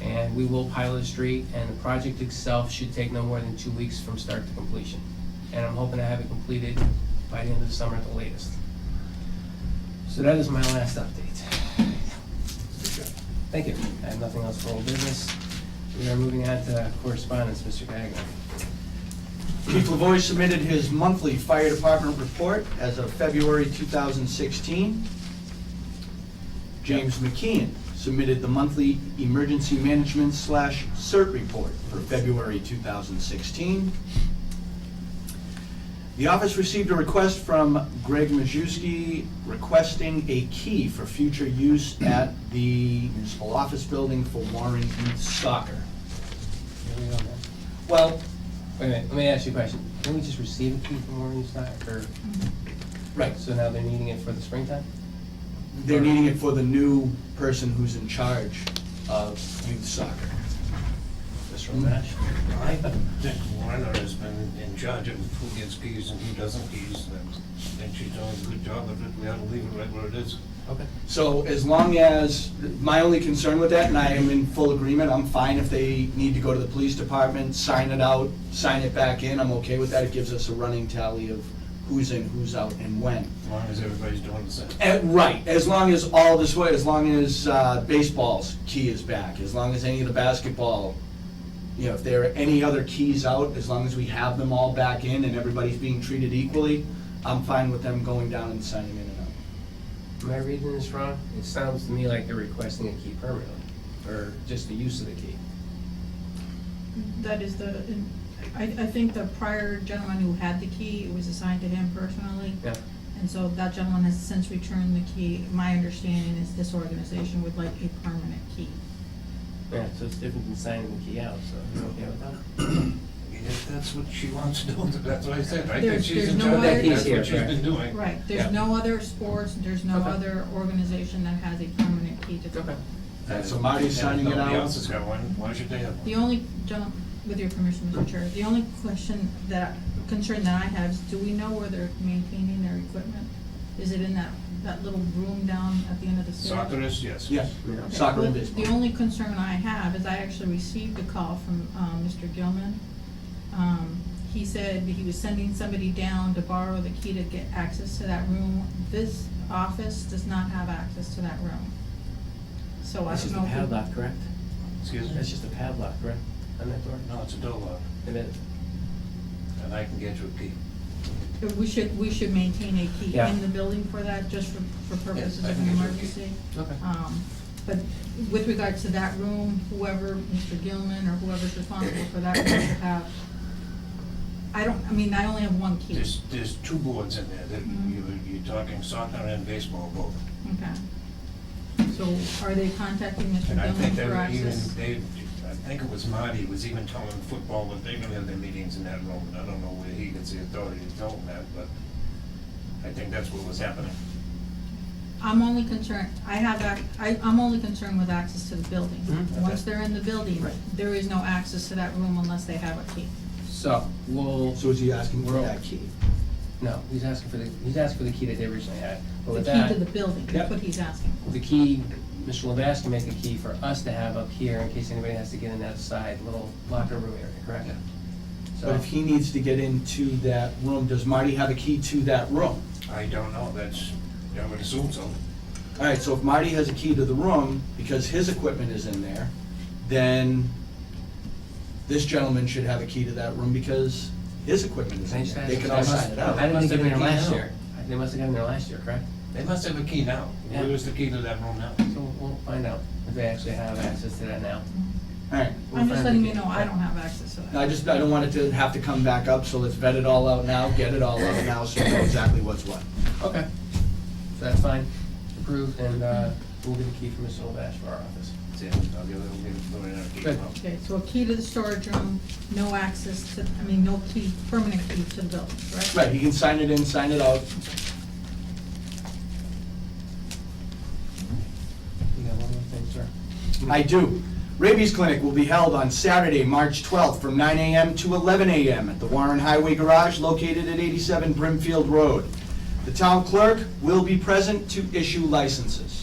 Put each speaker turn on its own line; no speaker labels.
and we will pilot a street, and the project itself should take no more than two weeks from start to completion. And I'm hoping to have it completed by the end of the summer at the latest. So that is my last update. Thank you. I have nothing else for old business. We are moving on to correspondence, Mr. Gagnon.
Chief Lavoy submitted his monthly fire department report as of February 2016. James McKeon submitted the monthly emergency management slash CERT report for February 2016. The office received a request from Greg Majewski requesting a key for future use at the municipal office building for Warren Youth Soccer.
Here we go, man.
Well,
Wait a minute, let me ask you a question. Can we just receive a key from Warren Stock, or,
right,
so now they're needing it for the springtime?
They're needing it for the new person who's in charge of youth soccer.
Mr. Nash, I think Warner has been in charge of who gets keys and who doesn't keys, and I think she's doing a good job of it, we ought to leave it right where it is.
Okay.
So as long as, my only concern with that, and I am in full agreement, I'm fine if they need to go to the police department, sign it out, sign it back in, I'm okay with that. It gives us a running tally of who's in, who's out, and when.
As long as everybody's doing the same.
Eh, right, as long as all this way, as long as uh, baseball's key is back, as long as any of the basketball, you know, if there are any other keys out, as long as we have them all back in and everybody's being treated equally, I'm fine with them going down and signing in and out.
Am I reading this wrong? It sounds to me like they're requesting a key permanently, or just the use of the key.
That is the, I, I think the prior gentleman who had the key, it was assigned to him personally.
Yeah.
And so that gentleman has since returned the key. My understanding is this organization would like a permanent key.
Yeah, so it's different than signing the key out, so you okay with that?
If that's what she wants to do, that's what I said, I think
There's-
she's
there's
in
no
charge,
other-
that's what she's been doing.
Right,
Yeah.
there's no other sports, there's no
Okay.
other organization that has a permanent key to the
Okay.
And so Marty's signing
And if
it
Nobody else has
out.
got one, why should they have one?
The only, gentleman, with your permission, Mr. Chair, the only question that, concern that I have is, do we know where they're maintaining their equipment? Is it in that, that little room down at the end of the stairs?
Soccer is, yes.
Yes,
Yeah.
soccer and
Well,
baseball.
The only concern I have is I actually received a call from, um, Mr. Gilman. Um, he said he was sending somebody down to borrow the key to get access to that room. This office does not have access to that room. So Oh, I
That's just
don't
a
know. if we-
padlock, correct?
Excuse me?
That's just a padlock, correct, on that door?
No, it's a door lock,
It is.
and I can get you a key.
if We should, we should maintain a key
Yeah.
in the building for that, just for, for purposes
I
of
think
an
it's okay.
emergency.
Okay.
Um, But with regard to that room, whoever, Mr. Gilman or whoever's responsible for that room should have, I don't, I mean, I only have one key. Mm-hmm.
There's, there's two boards in there, that you, you're talking soccer and baseball both.
Okay. So are they contacting Mr.
And I think
Gilman
they
for
were even,
access?
they, I think it was Marty was even telling football that they're gonna have their meetings in that room, and I don't know where he gets the authority to tell them that, but I think that's what was happening.
I'm only concerned, I have, ac- I, I'm only concerned with access to the building.
Mhm.
Once they're in the building, there is no access to that room unless they have a key.
So, we'll,
So is he asking for
We're all-
that key?
no, he's asking for the, he's asking for the key that they originally had. But
The
with
key
that,
to the building,
Yep.
that's what he's asking for.
the key, Mr. Levast can make a key for us to have up here in case anybody has to get in that side little locker room area, correct?
But
So,
if he needs to get into that room, does Marty have a key to that room?
I don't know, that's, I would assume so.
All right, so if Marty has a key to the room, because his equipment is in there, then this gentleman should have a key to that room because his equipment is
I
in
just
there.
asked-
They can all sign it
I
out.
didn't think they were
Must have been
last
key now.
year. They must have gotten there last year, correct?
They must have a key now.
Yeah.
Where's the key to that room now?
So we'll find out if they actually have access to that now.
All right,
I'm just letting you know, I
Right.
don't have access to that.
Now, I just, I don't want it to have to come back up, so let's vet it all out now, get it all out now, so we know exactly what's what.
Okay. So that's fine, approved, and uh, we'll get a key from Mr. Lavash for our office.
That's it, I'll give it, I'll give it, put it in a key.
Good.
now.
Okay, so a key to the storage room, no access to, I mean, no key, permanent key to the building, correct?
Right, he can sign it in, sign it out.
You got one more thing, sir?
I do. Rabies clinic will be held on Saturday, March 12th, from 9 a.m. to 11 a.m. at the Warren Highway Garage located at 87 Brimfield Road. The town clerk will be present to issue licenses.